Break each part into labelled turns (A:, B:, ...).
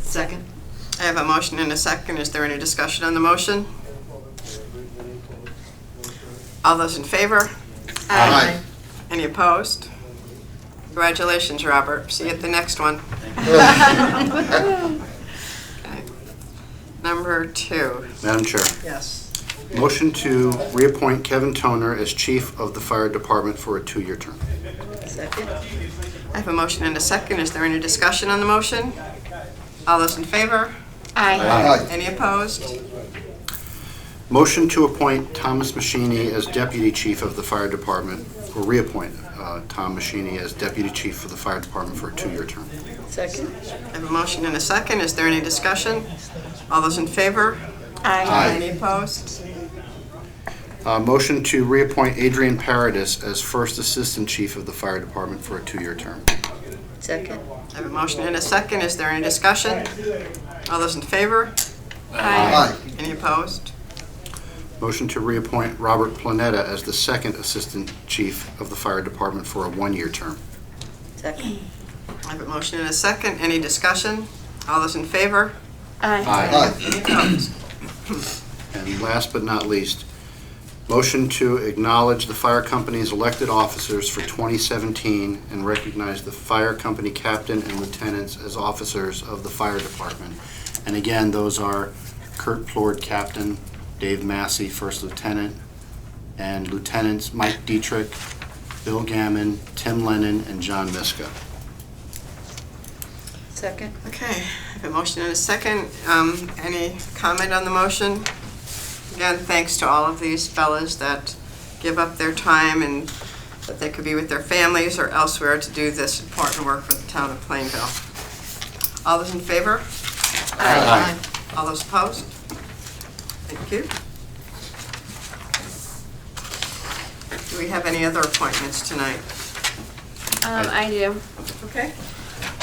A: Second.
B: I have a motion and a second. Is there any discussion on the motion? All those in favor?
C: Aye.
B: Any opposed? Congratulations, Robert. See you at the next one. Okay. Number two.
C: Madam Chair,
A: Yes.
C: motion to reappoint Kevin Toner as chief of the fire department for a two-year term.
A: Second.
B: I have a motion and a second. Is there any discussion on the motion? All those in favor? Any opposed?
C: Motion to appoint Thomas Machini as deputy chief of the fire department, or reappoint uh, Tom Machini as deputy chief for the fire department for a two-year term.
A: Second.
B: I have a motion and a second. Is there any discussion? All those in favor?
C: Aye.
B: Any opposed?
C: Uh, Motion to reappoint Adrian Paradis as first assistant chief of the fire department for a two-year term.
A: Second.
B: I have a motion and a second. Is there any discussion? All those in favor? Any opposed?
C: Motion to reappoint Robert Planetta as the second assistant chief of the fire department for a one-year term.
A: Second.
B: I have a motion and a second. Any discussion? All those in favor? Any opposed?
C: And last but not least, motion to acknowledge the fire company's elected officers for 2017 and recognize the fire company captain and lieutenants as officers of the fire department. And again, those are Kurt Plord, captain, Dave Massey, first lieutenant, and lieutenants Mike Dietrich, Bill Gammon, Tim Lennon, and John Miska.
A: Second.
B: Okay, I have a motion and a second. Um, Any comment on the motion? Again, thanks to all of these fellas that give up their time and that they could be with their families or elsewhere to do this important work for the town of Plainville. All those in favor?
C: Aye.
B: All those opposed? Thank you. Do we have any other appointments tonight?
D: Um, I do.
B: Okay.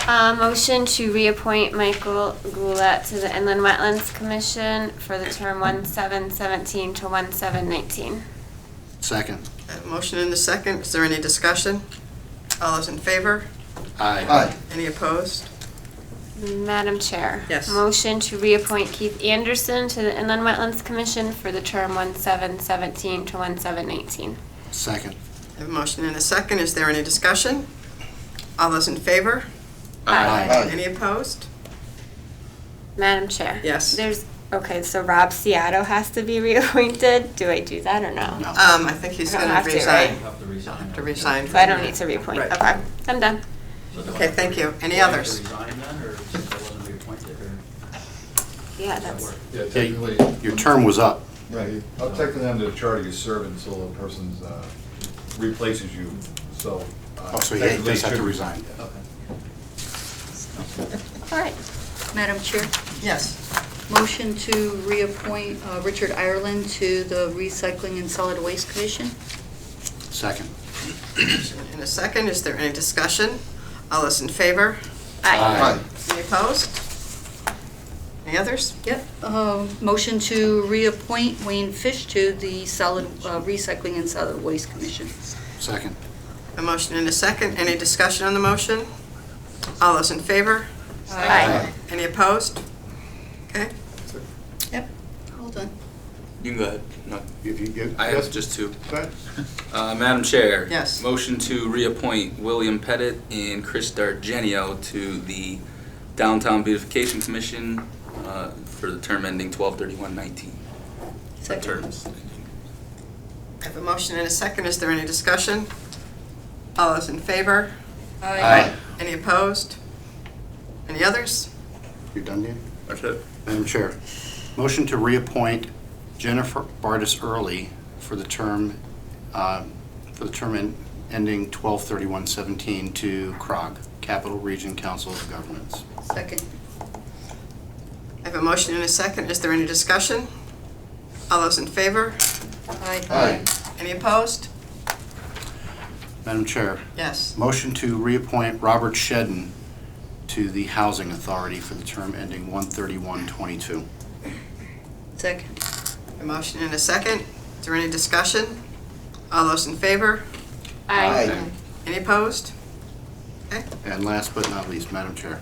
D: Uh, motion to reappoint Michael Goulet to the Inland Wetlands Commission for the term one seven seventeen to one seven nineteen.
C: Second.
B: Uh, Motion and a second. Is there any discussion? All those in favor?
C: Aye.
B: Any opposed?
D: Madam Chair.
B: Yes.
D: Motion to reappoint Keith Anderson to the Inland Wetlands Commission for the term one seven seventeen to one seven nineteen.
C: Second.
B: I have a motion and a second. Is there any discussion? All those in favor? Any opposed?
D: Madam Chair.
B: Yes.
D: There's, okay, so Rob Seato has to be reappointed. Do I do that or no?
C: No.
B: Um, I think he's
D: I don't
B: gonna
D: have to,
B: resign.
D: right?
E: Have to
B: I'll
E: resign.
B: Have to resign.
D: So I don't need to reappoint.
B: Right.
D: Okay, I'm done.
E: So do I
B: Okay,
E: have
B: thank
E: to-
B: you. Any
E: do I have to
B: others?
E: resign then, or since I wasn't reappointed, or
D: Yeah,
E: does that
D: that's.
E: work?
F: Yeah,
C: Yeah,
F: technically,
C: Your term was up.
F: right, up technically under the charter, you serve until the person uh, replaces you, so. uh,
C: Oh, so he
F: technically
C: does have to
F: should-
C: resign.
E: Okay.
D: All right.
G: Madam Chair,
B: Yes.
G: motion to reappoint uh, Richard Ireland to the Recycling and Solid Waste Commission.
C: Second.
B: In a second, is there any discussion? All those in favor? Any opposed? Any others?
G: Yep. Uh, Motion to reappoint Wayne Fish to the Solid, uh, Recycling and Solid Waste Commission.
C: Second.
B: A motion and a second. Any discussion on the motion? All those in favor?
D: Aye.
B: Any opposed? Okay.
G: Hold on.
H: You can go ahead. No,
C: If you- you-
H: I
C: yes,
H: have just two.
C: go ahead.
H: Uh, Madam Chair.
B: Yes.
H: Motion to reappoint William Pettit and Chris Dargenio to the Downtown Beautification Commission uh, for the term ending 12/31/19.
G: Second.
H: Terms.
B: I have a motion and a second. Is there any discussion? All those in favor?
C: Aye.
B: Any opposed? Any others?
C: You're done, Dan?
H: That's it.
C: Madam Chair, motion to reappoint Jennifer Bartis Early for the term, uh, for the term en- ending 12/31/17 to CROG, Capital Region Council of Governments.
G: Second.
B: I have a motion and a second. Is there any discussion? All those in favor?
G: Aye.
B: Any opposed?
C: Madam Chair,
B: Yes.
C: motion to reappoint Robert Shedden to the Housing Authority for the term ending 1/31/22.
G: Second.
B: A motion and a second. Is there any discussion? All those in favor?
D: Aye.
B: Any opposed?
C: And last but not least, Madam Chair,